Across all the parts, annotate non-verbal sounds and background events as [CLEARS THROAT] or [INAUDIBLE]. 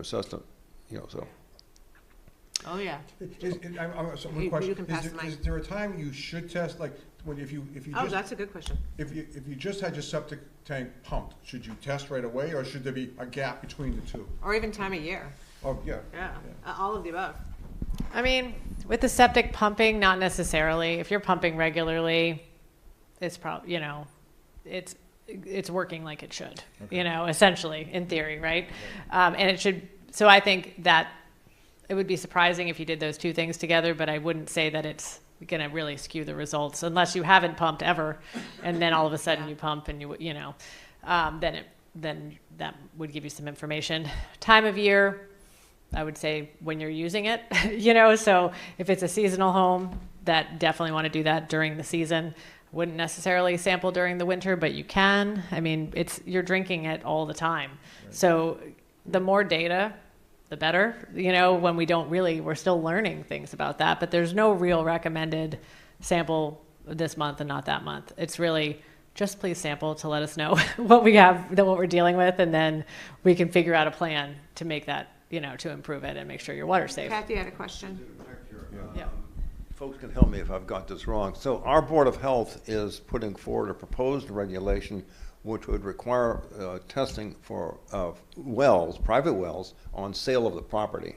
assessment, you know, so. Oh, yeah. Is, is- I'm, I'm, so You- one you question, can is pass the there, mic. is there a time you should test, like, when, if you, if you Oh, just, that's a good question. if you, if you just had your septic tank pumped, should you test right away, or should there be a gap between the two? Or even time of year. Oh, yeah. Yeah. Uh, All of the above. I mean, with the septic pumping, not necessarily. If you're pumping regularly, it's prob, you know, it's, it's working like it should, you know, essentially, in theory, right? Um, and it should, so I think that it would be surprising if you did those two things together, but I wouldn't say that it's gonna really skew the results unless you haven't pumped ever, and then all of a sudden Yeah. you pump and you, you know, um, then it, then that would give you some information. Time of year, I would say when you're using it, [LAUGHS] you know, so if it's a seasonal home, that definitely want to do that during the season. Wouldn't necessarily sample during the winter, but you can. I mean, it's you're drinking it all the time. So the more data, the better. You know, when we don't really we're still learning things about that, but there's no real recommended sample this month and not that month. It's really just please sample to let us know [LAUGHS] what we have, that what we're dealing with, and then we can figure out a plan to make that, you know, to improve it and make sure your water's safe. Kathy had a question. Yeah. Folks can help me if I've got this wrong. So our Board of Health is putting forward a proposed regulation which would require uh, testing for uh, wells, private wells, on sale of the property.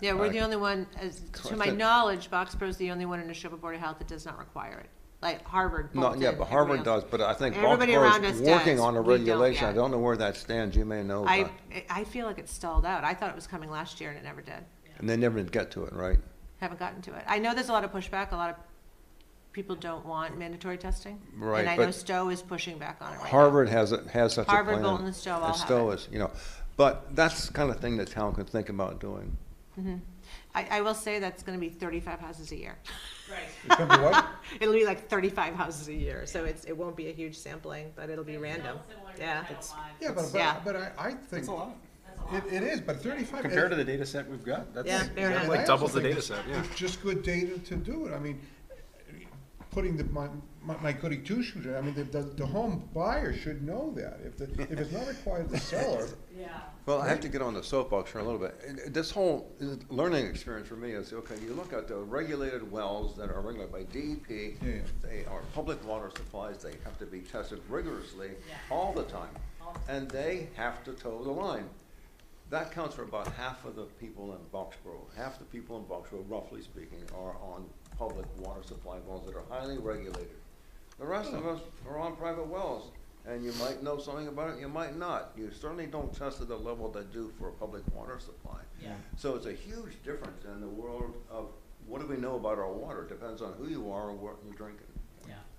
Yeah, we're the only one, as, to my Correct. knowledge, Boxborough's the only one in Neshoba Board of Health that does not require it. Like Harvard, Not Bolton. yet, but everyone Harvard does, else. but I think Oh, Everybody Baltimore around us is working does. on a We don't regulation. I yet. don't know where that stands. You may know. I, but- I feel like it's stalled out. I thought it was coming last year and it never did. And they never did get to it, right? Haven't gotten to it. I know there's a lot of pushback. A lot of people don't want mandatory testing. Right, And I know but- Stowe is pushing back on it right now. Harvard has, it has such a plan. Harvard, Bolton, and Stowe all have Stowe it. is, you know, but that's the kind of thing the town can think about doing. I, I will say that's gonna be thirty-five houses a year. It's gonna be [LAUGHS] what? It'll be like thirty-five houses a year, so it's, it won't be a huge sampling, but it'll be random. Yeah, it's, Yeah, but, Yeah. but, but I, I think. That's a lot. It, it is, but thirty-five. Compared to the data set we've got, yeah, that's, fair enough. Like doubles the data set, yeah. It's just good data to do it, I mean, putting the, my, my my goody two-shoes, I mean, the, the, the home buyer should know that, if the, if it's not required to sell it. Well, I have to get on the soapbox for a little bit. And, uh, This whole uh, learning experience for me is, okay, you look at the regulated wells that are regulated by E DEP. Yeah, yeah. They are public water supplies, they have to be tested rigorously all the time. And they have to toe the line. That counts for about half of the people in Boxborough. Half the people in Boxborough, roughly speaking, are on public water supply wells that are highly regulated. The rest of us are on private wells, and you might know something about it, you might not. You certainly don't test at the level they do for a public water supply. So it's a huge difference in the world of what do we know about our water, depends on who you are and what you're drinking.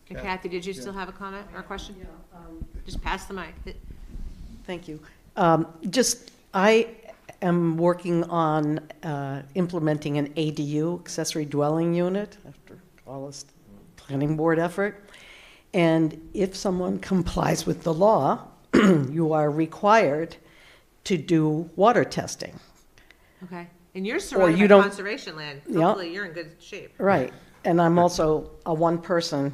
And Kathy, did you still have a comment or a question? Just pass the mic. Thank you. Um, Just, I am working on uh, implementing an ADU, accessory dwelling unit, after all this planning board effort. And if someone [LAUGHS] complies with the law, [CLEARS THROAT] you are required to do water testing. Okay, and you're surrounded by you don't- conservation land. Yeah. Hopefully, you're in good shape. Right. And I'm also a one person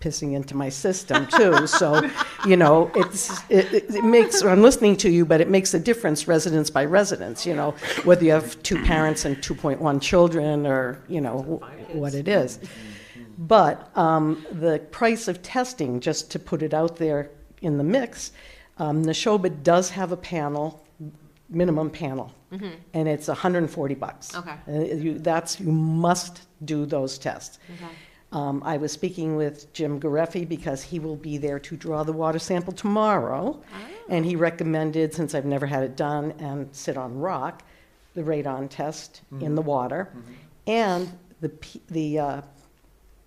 pissing into my system too. So, you know, it's, it, it- it makes, I'm listening to you, but it makes a difference residence by residence, you know, whether you have two parents and 2.1 children or, you know, wh- what it is. But um, the price of testing, just to put it out there in the mix, um, Neshoba does have a panel, minimum panel, and it's 140 bucks. Mm-hmm. Okay. Uh, you, that's, you must do those tests. Okay. Um, I was speaking with Jim Gareffi because he will be there to draw the water sample tomorrow. Oh. And he recommended, since I've never had it done and sit on rock, the radon test in the water. And the, P- the uh,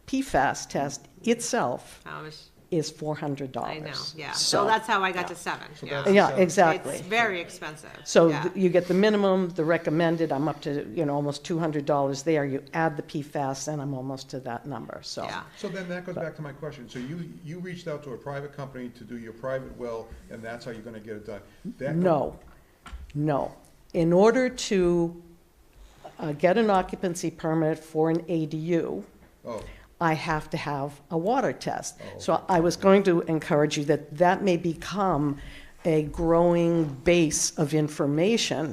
PFAS test itself I was, is $400. I know, yeah. So that's how I got to seven, yeah. Yeah, exactly. It's very expensive. So yeah. th- you get the minimum, the recommended, I'm up to, you know, almost $200 there. You add the PFAS, and I'm almost to that number, so. Yeah, So then that goes back to my question, so you, you reached out to a private company to do your private well, and that's how you're gonna get it done? That- No, no. In order to uh, get an occupancy permit for an ADU, Oh, I have to have a water test. So I was going to encourage you that that may become a growing base of information